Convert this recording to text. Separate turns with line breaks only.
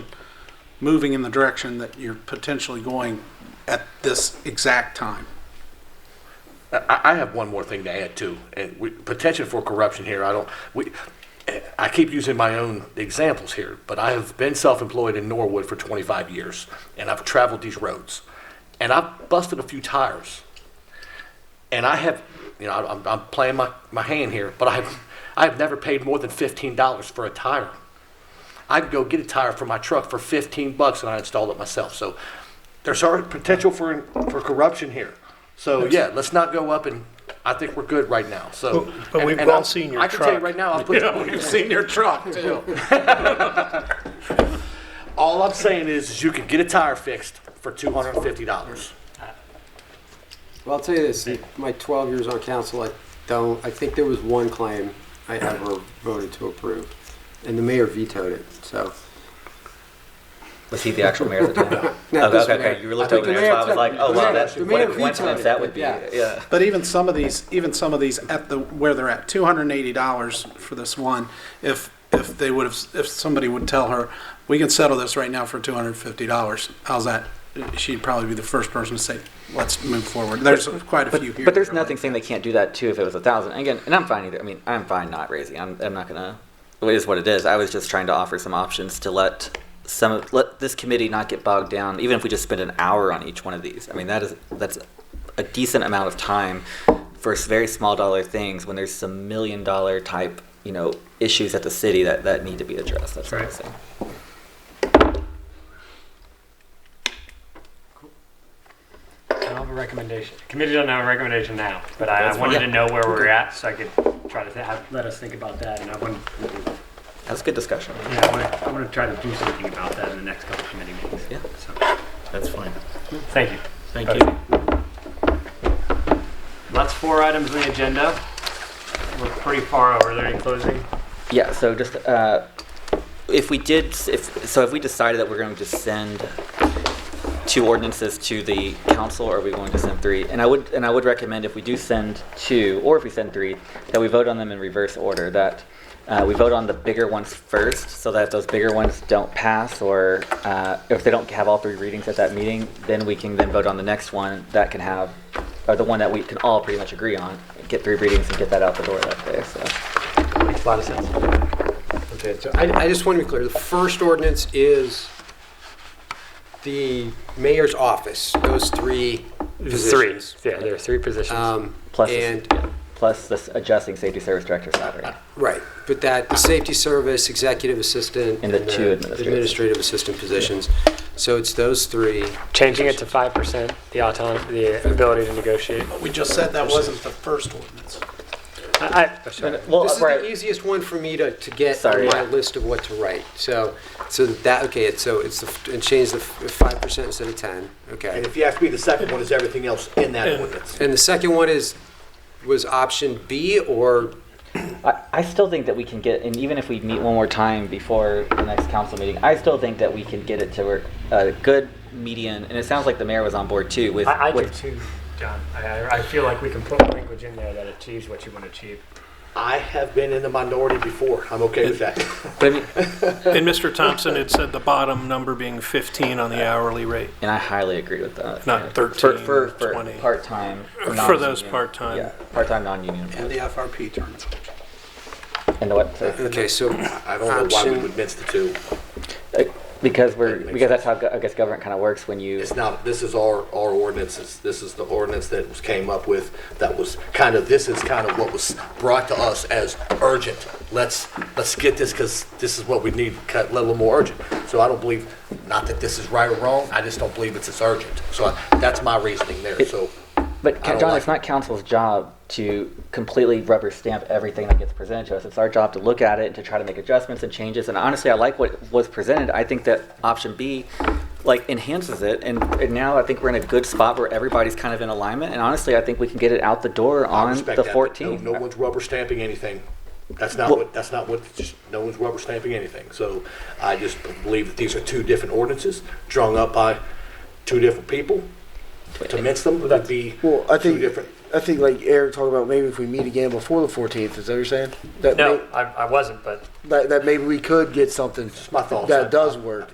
moving in the direction that you're potentially going at this exact time.
I, I have one more thing to add too, and we, potential for corruption here. I don't. We, I keep using my own examples here, but I have been self-employed in Norwood for 25 years, and I've traveled these roads, and I've busted a few tires, and I have, you know, I'm, I'm playing my, my hand here, but I have, I have never paid more than $15 for a tire. I can go get a tire for my truck for 15 bucks and I installed it myself. So there's our potential for, for corruption here. So yeah, let's not go up and, I think we're good right now, so.
But- but we've
and- and
all
I'm-
seen your
I can tell you
truck.
right now, I'll put.
You've seen your truck too.
All I'm saying is, is you can get a tire fixed for two hundred and fifty dollars.
Well, I'll tell you this, in my 12 years on council, I don't, I think there was one claim I ever voted to approve, and the mayor vetoed it, so.
Was he the actual mayor at the time?
No,
okay,
this
okay,
mayor.
okay. You were looked
I think
over
the
there, so I
mayor
was like,
vetoed
oh,
it.
wow,
The
that's
mayor
what a
vetoed
coincidence
it,
that would be.
yeah.
Yeah.
But even some of these, even some of these at the, where they're at, two hundred and eighty dollars for this one, if, if they would have, if somebody would tell her, we can settle this right now for two hundred and fifty dollars, how's that? She'd probably be the first person to say, let's move forward. There's quite a few here.
But there's nothing saying they can't do that too if it was a thousand. Again, and I'm fine either. I mean, I'm fine not raising. I'm, I'm not gonna. It is what it is. I was just trying to offer some options to let some of- let this committee not get bogged down. Even if we just spend an hour on each one of these, I mean that is that's a decent amount of time for s- very small dollar things when there's some million dollar type you know issues at the city that that need to be addressed. That's what I'm saying.
I don't have a recommendation. Committee doesn't have a recommendation now, but I,
That's
I wanted
fine.
to know where we're at so I could try to th- have, let us think about that. And I want,
That's good discussion.
yeah, I want, to, I want to try to do something about that in the next couple of committee meetings.
Yeah.
So,
That's fine.
thank you.
Thank
Okay.
you.
That's four items on the agenda. We're pretty far over. Are there any closing?
Yeah, so just, uh, if we did, if, so if we decided that we're going to send two ordinances to the council, or are we going to send three? And I would, and I would recommend if we do send two, or if we send three, that we vote on them in reverse order, that, uh, we vote on the bigger ones first, so that if those bigger ones don't pass, or, uh, if they don't have all three readings at that meeting, then we can then vote on the next one that can have, or the one that we can all pretty much agree on, get three readings and get that out the door that day, so.
Makes a lot of sense.
Okay, so I, I just want to be clear, the first ordinance is the mayor's office, those three
Three.
positions.
Yeah, there are three positions.
Um,
Plus, this-
And,
yeah, plus this adjusting safety service director salary.
right, but that, the safety service, executive assistant.
And the two administrative.
Administrative assistant positions. So it's those three.
Changing it to 5%, the autonomy, the ability to negotiate.
We just said that wasn't the first ordinance.
I,
Well,
This is
right.
the easiest one for me to, to get on
Sorry,
my
yeah.
list of what to write. So, so that, okay, it's, so it's, the- and change the five percent instead of ten, okay.
And if you ask me, the second one is everything else in that ordinance.
And the second one is, was option B or,
I, I still think that we can get, and even if we meet one more time before the next council meeting, I still think that we can get it to where a good median, and it sounds like the mayor was on board too with.
I, I do
with-
too, John. I, I- I feel like we can put language in there that achieves what you want to achieve.
I have been in the minority before. I'm okay with that.
But I mean,
And Mr. Thompson had said the bottom number being 15 on the hourly rate.
and I highly agree with that.
Not
Yeah.
13,
For, for, for
20.
part-time.
For
non-union.
those part-time.
Yeah, part-time, non-union.
And
employees.
the FRP terms.
And the what, so-
okay, so.
I don't know why we
option-
would mix the two.
like, uh, because we're,
That makes
because that's how, go- I guess government kind of works when you.
It's not, this is our, our ordinances. This is the ordinance that was came up with that was kind of, this is kind of what was brought to us as urgent. Let's, let's get this because this is what we need, cut a little more urgent. So I don't believe, not that this is right or wrong, I just don't believe it's as urgent. So I- that's my reasoning there, so.
But
I don't
John,
like
it's not council's job to completely rubber stamp everything that gets presented to us. It's our job to look at it and to try to make adjustments and changes. And honestly, I like what was presented. I think that option B, like, enhances it. And, and now I think we're in a good spot where everybody's kind of in alignment. And honestly, I think we can get it out the door
I
on
respect
the
that, but no-
14th.
No one's rubber stamping anything. That's not
Well-
what, that's not what, just, no one's rubber stamping anything. So I just believe that these are two different ordinances drawn up by two different people. To mix them would be
Well, I
two
think
different.
I think like Eric talked about maybe if we meet again before the 14th, is that what you're saying? That
No, I, I wasn't, but
may, that, that maybe we could get something
It's my thoughts.
that does work.